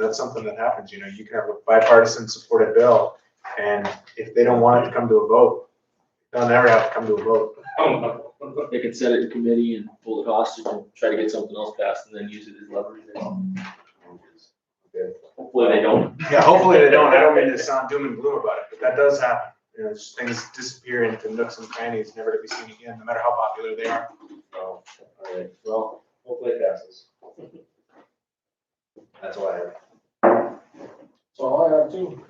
that's something that happens, you know, you can have a bipartisan supported bill, and if they don't want it to come to a vote, they'll never have to come to a vote. They can set it in committee and hold it hostage and try to get something else passed and then use it as leverage. Hopefully they don't. Yeah, hopefully they don't, I don't mean to sound doom and gloom about it, but that does happen, you know, just things disappear into nooks and crannies, never to be seen again, no matter how popular they are. Oh, all right, well, hopefully it passes. That's all I have. So I have two.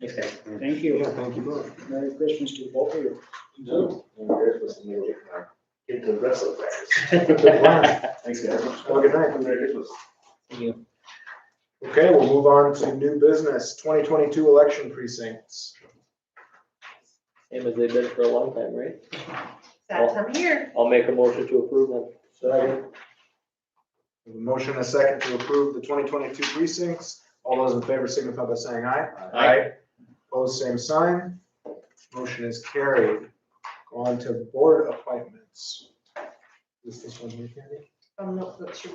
Thanks, guys. Thank you. Thank you both. Merry Christmas to both of you. I'm very close to me, uh, Get to the wrestling practice. Thanks, guys. Have a good night. I'm very good with- Okay, we'll move on to new business, twenty twenty-two election precincts. Same as they've been for a long time, right? That time of year. I'll make a motion to approve them. We have a Motion and a second to approve the twenty twenty-two precincts. All those in favor signify by saying aye. Aye. Opposed, same sign. Motion is carried. Go on to board appointments. Is this one here, Candy? I'm not that sure.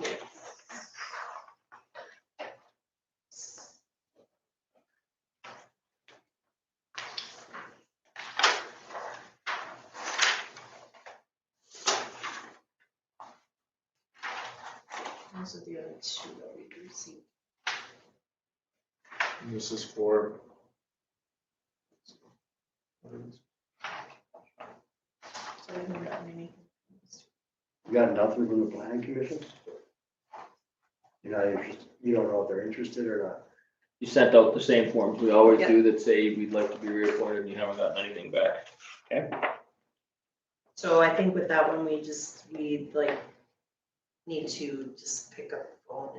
Those are the other two that we can see. And This is for. So I haven't gotten any. You got nothing from the planning commission? You're not interested, you don't know if they're interested or not. You sent out the same forms we always Yeah. do that say we'd like to be reappointed and you haven't gotten anything back. So I think with that one, we just, we like need to just pick up the phone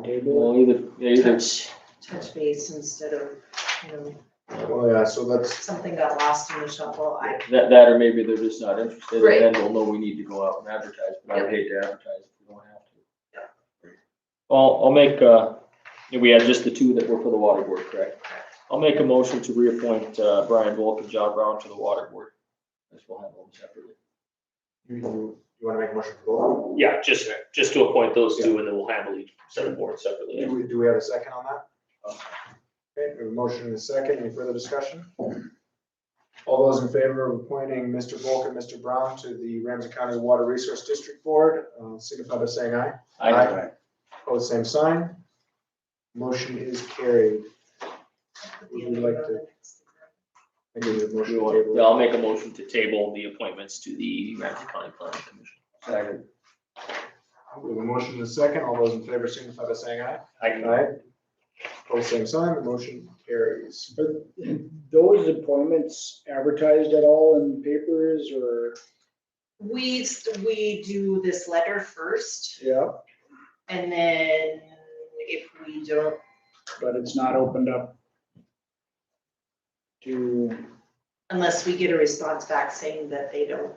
and Well, either, yeah, either, touch, touch base instead of, you know, Well, Oh, yeah, so that's, something got lost in the shuffle, I, that, that or maybe they're just not interested Right. and then we'll know we need to go out and advertise, but I would hate to advertise if we don't have Yeah. to. Well, I'll make, uh, yeah, we had just the two that were for the water board, correct? I'll make a motion to reappoint, uh, Brian Volk and John Brown to the water board. As we'll handle them separately. you, you wanna make a motion for Yeah, just, just to appoint those two and then we'll handle each set of boards both? Do separately. we, do we have a second on that? Okay, we have a motion and a second. Any further discussion? All those in favor of appointing Mr. Volk and Mr. Brown to the Ramsey County Water Resource District Board, uh, signify by saying aye. I, Opposed, same sign. Motion is carried. Would you like to? I give you a motion yeah, to table. I'll make a motion to table the appointments to the Ramsey County Planning Commission. Second, We have a motion and a second. All those in favor signify by saying aye. I, Aye. Opposed, same sign. The motion carries. Those appointments advertised at all in papers or, We, s- we do this letter first, yeah, and then if we don't, but it's not opened up to, unless we get a response back saying that they don't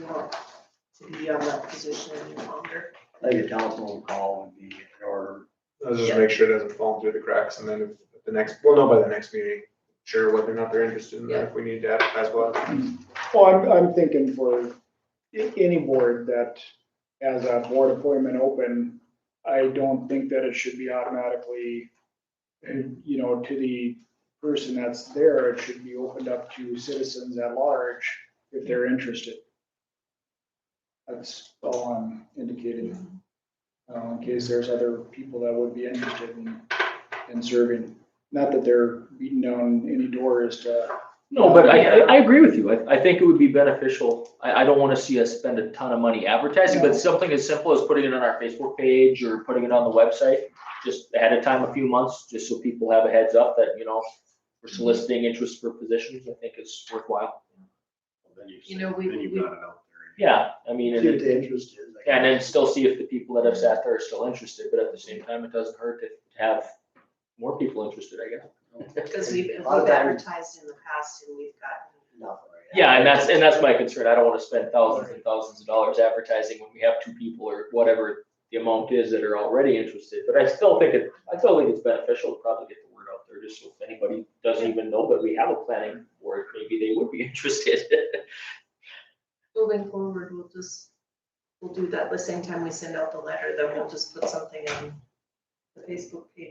want to be on that position any longer. I think a telephone call would be in order. Let's just make sure it doesn't fall through the cracks and then if at the next, we'll know by the next meeting, sure whether or not they're interested in that, if we need to advertise well. well, I'm, I'm thinking for a- any board that has a board appointment open, I don't think that it should be automatically, eh, you know, to the person that's there, it should be opened up to citizens at large if they're interested. That's all I'm indicating. uh, in case there's other people that would be interested in, in serving. Not that they're beating down any doors to, No, but I, I, I agree with you. I, I think it would be beneficial. I, I don't wanna see us spend a ton of money advertising, No. but something as simple as putting it on our Facebook page or putting it on the website, just ahead of time, a few months, just so people have a heads up that, you know, we're soliciting interest for positions, I think is worthwhile. Then you've- You know, we- Then you've we- got it out there. Yeah, I mean, If and, the it- interest is. I and then guess. still see if the people that have sat there are still interested, but at the same time, it doesn't hurt to have more people interested, I guess. Because we've, we've A lot of times- advertised in the past and we've gotten Nothing right now. Yeah, and that's, and that's my concern. I don't wanna spend thousands and thousands of dollars advertising when we have two people or whatever the amount is that are already interested, but I still think it, I still think it's beneficial to probably get the word out there, just so if anybody doesn't even know that we have a planning board, maybe they would be interested. moving forward, we'll just, we'll do that the same time we send out the letter, then we'll just put something on the Facebook page